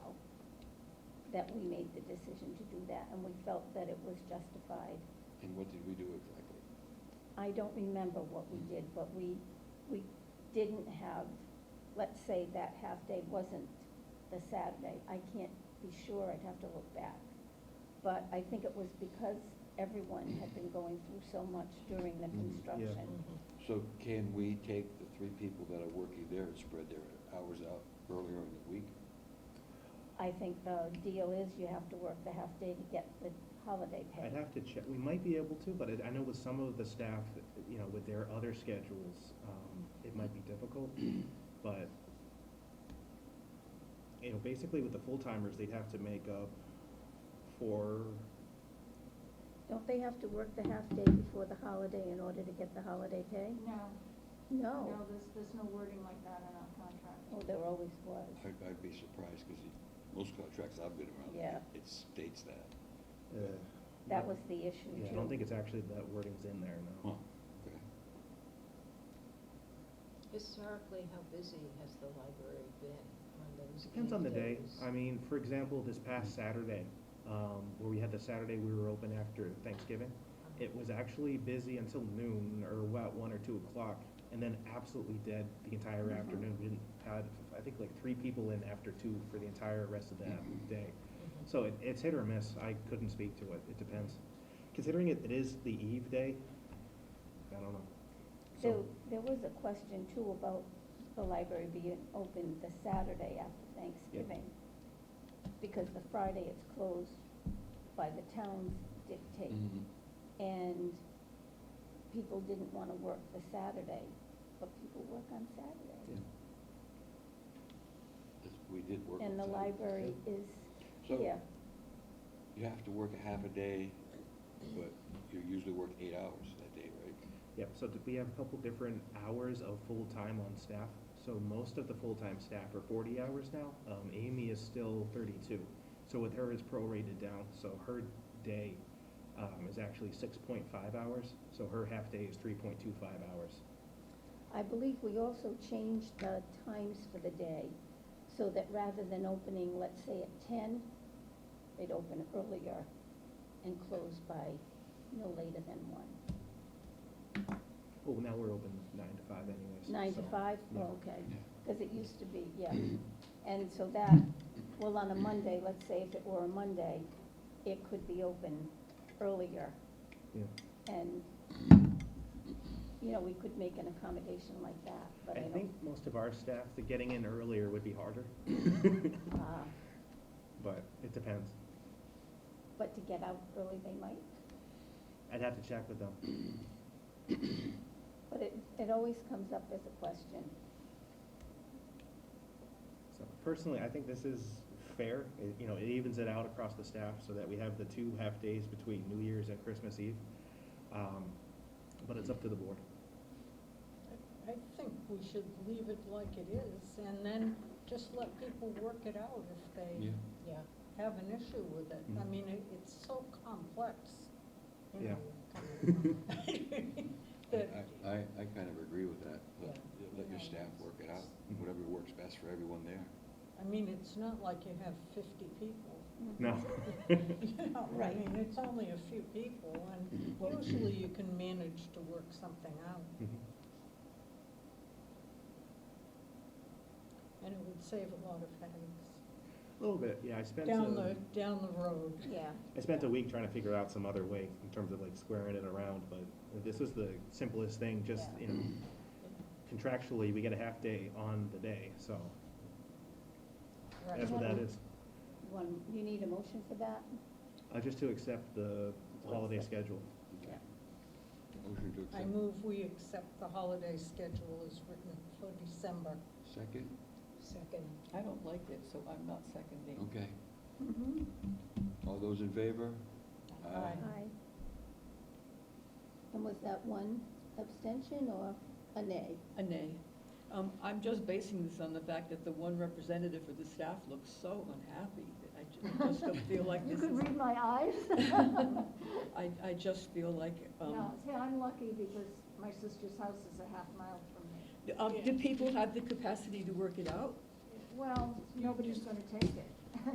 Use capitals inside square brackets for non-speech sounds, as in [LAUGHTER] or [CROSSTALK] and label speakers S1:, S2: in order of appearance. S1: that we made the decision to do that, and we felt that it was justified.
S2: And what did we do exactly?
S1: I don't remember what we did, but we, we didn't have, let's say that half-day wasn't the Saturday. I can't be sure, I'd have to look back. But I think it was because everyone had been going through so much during the
S3: Mm-hmm.
S2: Mhm.
S1: construction.
S4: Mm-hmm.
S2: So can we take the three people that are working there and spread their hours out earlier in the week?
S1: I think the deal is you have to work the half-day to get the holiday pay.
S3: I'd have to check, we might be able to, but it- I know with some of the staff, you know, with their other schedules, um, it might be difficult, but, you know, basically with the full-timers, they'd have to make up for,
S1: Don't they have to work the half-day before the holiday in order to get the holiday pay?
S5: No, no,
S1: No.
S5: there's, there's no wording like that in our contract.
S1: Oh, there always was.
S2: I'd, I'd be surprised, because most contracts I've been around,
S1: Yeah.
S2: it- it states that.
S3: uh.
S1: That was the issue,
S3: Yeah, I
S1: too.
S3: don't think it's actually, that wording's in there,
S2: Huh,
S3: no.
S2: okay.
S4: Historically, how busy has the library been on those?
S3: Depends on the
S4: key
S3: day.
S4: days?
S3: I mean, for example, this past Saturday, um, where we had the Saturday we were open after Thanksgiving, it was actually busy until noon or about one or two o'clock, and then absolutely dead the entire afternoon. We didn't, had, I think, like three people in after two for the entire rest of that day.
S4: Mhm.
S3: So it, it's hit or miss. I couldn't speak to it. It depends. Considering it, it is the eve day, I don't know.
S1: So there was a question too about the library being open the Saturday after Thanksgiving. Because the Friday it's closed by the town's dictate.
S2: Mhm.
S1: And people didn't wanna work the Saturday, but people work on Saturday.
S2: Yes, We did work.
S1: And the
S2: on Saturday.
S1: library is,
S2: So
S1: yeah,
S2: you have to work a half a day, but you usually work eight hours that day, right?
S3: Yep, so th- we have a couple different hours of full-time on staff. So most of the full-time staff are forty hours now. Um, Amy is still thirty-two. So with her, it's prorated down, so her day, um, is actually six point five hours. So her half-day is three point two five hours.
S1: I believe we also changed the times for the day, so that rather than opening, let's say at ten, they'd open earlier and close by no later than one.
S3: Well, now we're open nine to five anyways.
S1: Nine to
S3: so-
S1: five,
S3: yeah.
S1: oh, okay,
S2: Yeah.
S1: because it used to be, yeah. And so that, well, on a Monday, let's say if it were a Monday, it could be open earlier,
S3: Yeah.
S1: and, you know, we could make an accommodation like that, but I
S3: I
S1: don't.
S3: think most of our staff, the getting in earlier would be harder,
S1: [LAUGHS] ah,
S3: but it depends.
S1: But to get out early, they might.
S3: I'd have to check with them.
S1: But it, it always comes up as a question.
S3: So personally, I think this is fair, It- you know, it evens it out across the staff so that we have the two half-days between New Year's and Christmas Eve. Um, But it's up to the board.
S6: I- I think we should leave it like it is, and then just let people work it out if they
S4: Yeah,
S6: have an issue with it. I
S3: Mhm.
S6: mean, it, it's so complex, you
S3: Yeah.
S6: know.
S4: Mm-hmm.
S6: [LAUGHS] kind of,
S2: I,
S6: that-
S2: I- I, I kind of agree with that. Let,
S4: Yeah.
S2: let your staff work it out, whatever works best for everyone there.
S6: I mean, it's not like you have fifty people.
S3: No.
S6: You know, I
S1: Right.
S6: mean, it's only a few people, and usually you can manage to work something out. And it would save a lot of headaches
S3: A little bit, yeah, I spent,
S6: down
S3: uh,
S6: the, down the road.
S1: Yeah.
S3: I spent a week trying to figure out some other way in terms of like squaring it around, but this was the simplest thing, just, you know, contractually, we get a half-day on the day, so
S6: Right.
S3: that's what that is.
S1: One, you need a motion for that?
S3: Uh, Just to accept the holiday schedule.
S1: Yeah.
S2: Motion to
S6: I
S2: accept.
S6: move we accept the holiday schedule as written for December
S2: Second?
S6: second.
S4: I don't like it, so I'm not seconding.
S2: Okay.
S1: Mm-hmm.
S2: All those in favor?
S6: Aye.
S1: Aye. And was that one abstention or a nay?
S7: A nay. Um, I'm just basing this on the fact that the one representative for the staff looks so unhappy. that I ju- just don't feel
S5: [LAUGHS]
S7: like
S1: [LAUGHS] You
S7: this
S1: could
S7: is,
S1: read my eyes.
S7: [LAUGHS] I, I just feel like,
S5: No,
S7: um,
S5: see, I'm lucky because my sister's house is a half mile from me.
S7: Uh, um, do people have the capacity to work it out?
S5: Well, nobody's gonna take it. [LAUGHS]